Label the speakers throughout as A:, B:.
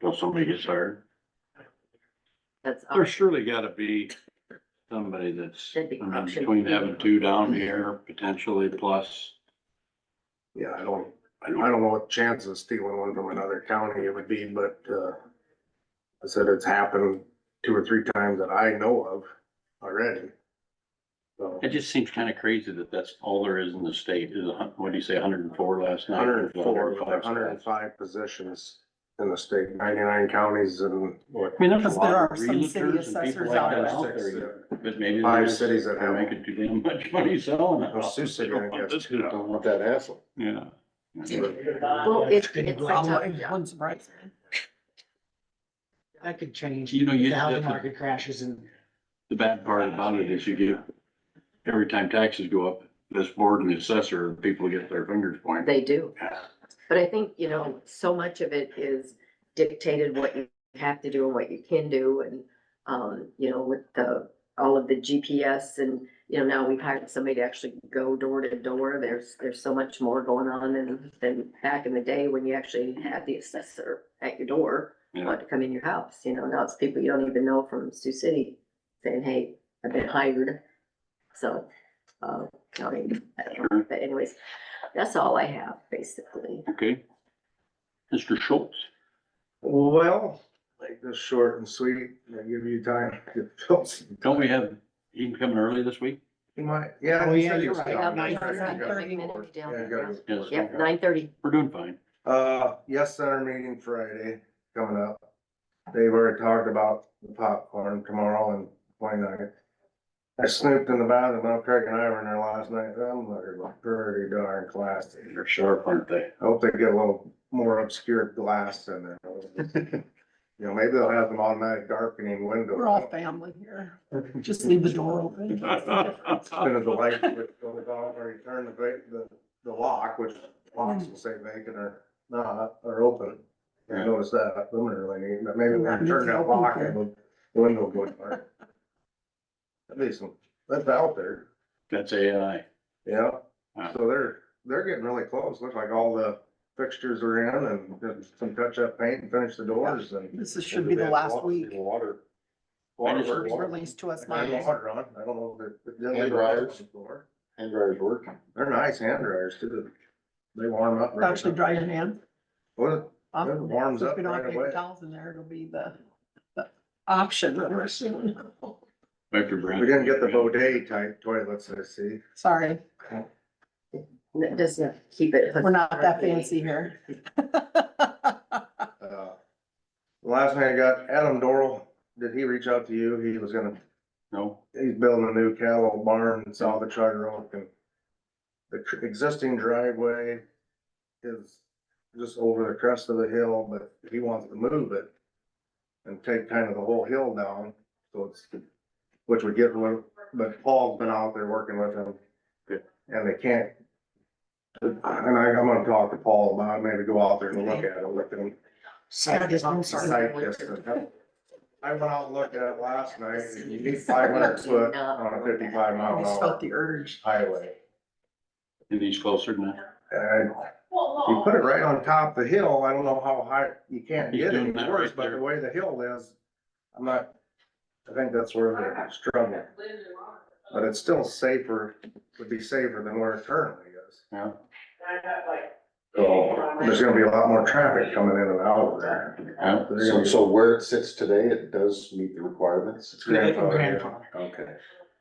A: until somebody gets hired.
B: That's, all.
A: There's surely gotta be somebody that's
B: Should be
A: uh,
B: option
A: between
B: B.
A: having two down here potentially plus.
C: Yeah, I don't, I don't know what chances of stealing one from another county it would be, but, uh, I said it's happened two or three times that I know of already. So,
A: It just seems kinda crazy that that's all there is in the state is, a hun- what'd you say, hundred and four last night?
C: hundred and four,
A: 105
C: hundred and five positions in the state, ninety-nine counties and what?
A: I mean, there's a
D: Because
A: lot
D: there
A: of
D: are some
A: realtors
D: city
A: and people
D: assessors
A: like
D: out
A: that
D: there.
A: out there, but maybe.
C: Five
A: they're just-
C: cities that
A: they're
C: have-
A: Making too damn much money selling it.
C: Well, Sioux City, I
A: Don't want
C: guess,
A: this crap.
C: don't want that hassle.
A: Yeah.
B: well, it's, it's
D: Well,
B: like,
D: it
B: yeah.
D: wouldn't surprise me.
E: That could change.
A: You know, you-
E: The housing market crashes and
A: The bad part about it is you get, every time taxes go up, this board and the assessor, people get their fingers pointed.
B: they do. But I think, you know, so much of it is dictated what you have to do and what you can do and, um, you know, with the, all of the GPS and, you know, now we've hired somebody to actually go door to door. There's, there's so much more going on than, than back in the day when you actually had the assessor at your door,
A: Yeah.
B: wanting to come in your house, you know, now it's people you don't even know from Sioux City saying, hey, I've been hired. So, uh, I mean, I don't know, but anyways, that's all I have, basically.
A: Okay. Mr. Schultz,
C: Well, like this short and sweet, I give you time to fill some.
A: don't we have, he can come in early this week?
C: You might, yeah.
E: Oh,
C: he
E: yeah,
C: said he
E: you're
C: was
E: right.
C: down.
E: Nine
C: Yeah, you gotta-
E: thirty,
B: Nine thirty.
C: yeah, you gotta-
A: Yes.
B: Yep, nine thirty.
A: We're doing fine.
C: Uh, yes, center meeting Friday coming up. They've already talked about the popcorn tomorrow and twenty-ninth. I snooped in the bathroom, Mount Craig and I were in there last night, them are pretty darn classy.
A: They're sharp, aren't they?
C: I hope they get a little more obscured glass in there. You know, maybe they'll have them automatic darkening windows.
D: We're all family here. Just leave the door open.
C: Turn of the light would go on, or you turn the, va- the, the lock, which locks will say vacant or not, or open. I
A: Yeah.
C: noticed that, I'm really neat, but maybe when you turn that lock, it will- the window will go dark. At least, that's out there,
A: That's AI.
C: yeah, so they're, they're getting really close, look like all the fixtures are in and just some touch-up paint and finish the doors and.
D: This is- should be the last week.
C: Water.
A: I just-
D: It was
C: Water.
D: Released to us
C: I
D: Monday.
C: had water on, I don't know if they're.
F: Hand dryers. Hand dryer's working.
C: They're nice hand dryers too. They warm up. right
D: Actually,
C: up.
D: dry your hand.
C: Well,
D: Um,
C: It warms
D: so
C: up
D: If you don't have
C: right
D: paper
C: away.
D: towels in there, it'll be the, the option that we're assuming.
A: Dr. Brown.
C: We didn't get the Bodey type toilets, I see.
D: Sorry,
B: That doesn't keep it.
D: we're not that fancy here.
C: Uh, Last thing I got, Adam Doral, did he reach out to you? He was gonna,
A: No,
C: he's building a new cattle barn in south of Charter Oak and the tr- existing driveway is just over the crest of the hill, but he wants to move it and take kind of the whole hill down, so it's, which would get, rid- but Paul's been out there working with him. And they can't. And I, I'm gonna talk to Paul about, it, maybe go out there and look at it, look at him.
E: side distance.
B: Sorry.
C: Site distance. I went out and looked at it last night, and you need five hundred foot on a fifty-five mile
D: I
C: an
D: just felt
C: hour
D: the urge.
C: highway.
A: and he's closer than that.
C: And you put it right on top of the hill, I don't know how high, you can't
A: He's
C: get
A: doing
C: any
A: that
C: worse,
A: right
C: but
A: there.
C: the way the hill is, I'm not, I think that's where they're struggling. But it's still safer, would be safer than where it currently is.
A: Yeah.
C: So Oh, there's gonna be a lot more traffic coming in and out of there.
A: Yeah.
C: They're gonna
F: So,
C: be-
F: so where it sits today, it does meet the requirements?
C: It's grandfathered in.
E: Grandfather.
F: Okay.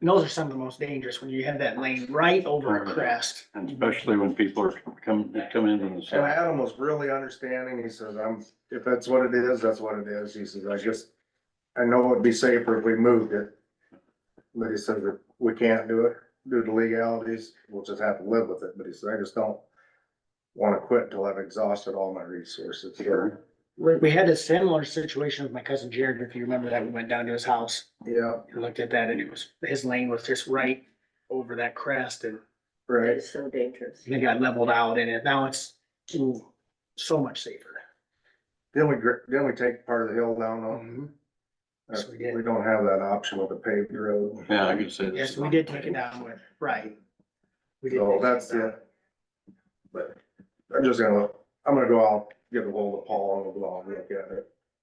E: And those are some of the most dangerous when you have that lane right over a crest.
A: And especially when people are coming, coming in on the
C: And
A: side.
C: Adam was really understanding. He says, I'm, if that's what it is, that's what it is. He says, I just, I know it'd be safer if we moved it. But he said that we can't do it due to legalities. We'll just have to live with it. But he said, I just don't wanna quit till I've exhausted all my resources. So,
E: We, we had a similar situation with my cousin Jared, if you remember that, we went down to his house
C: Yeah,
E: and looked at that and it was, his lane was just right over that crest and
C: right.
B: It's so dangerous.
E: it got leveled out in it. Now it's ooh, so much safer.
C: Then we, gr- then we take part of the hill down though.
A: Mm-hmm.
E: Yes, we did.
C: We don't have that option with a paved road.
A: Yeah, I could say.
E: Yes, we did take it down with, right. We did
C: So
E: take it
C: Oh, that's
E: down.
C: it. But I'm just gonna, I'm gonna go out, get a hold of Paul and we'll go out and look at it.